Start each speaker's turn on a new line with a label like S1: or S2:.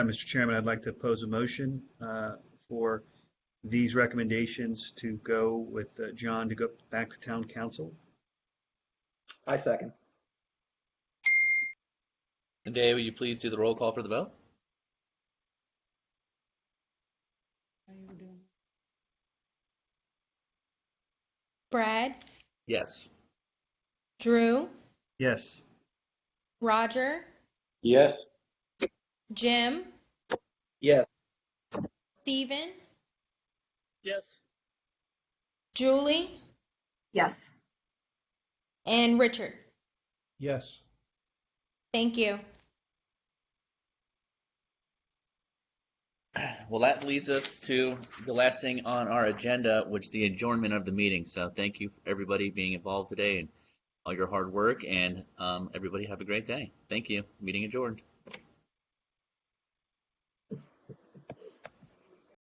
S1: Uh, Mr. Chairman, I'd like to pose a motion uh, for these recommendations to go with uh, John to go back to town council.
S2: I second.
S3: And Dave, will you please do the roll call for the vote?
S4: Brad,
S3: Yes.
S4: Drew,
S1: Yes.
S4: Roger,
S2: Yes.
S4: Jim,
S2: Yes.
S4: Steven,
S2: Yes.
S4: Julie,
S5: Yes.
S4: and Richard.
S6: Yes.
S4: Thank you.
S3: Well, that leads us to the last thing on our agenda, which is the adjournment of the meeting. So thank you, for everybody being involved today and all your hard work, and um, everybody have a great day. Thank you. Meeting adjourned.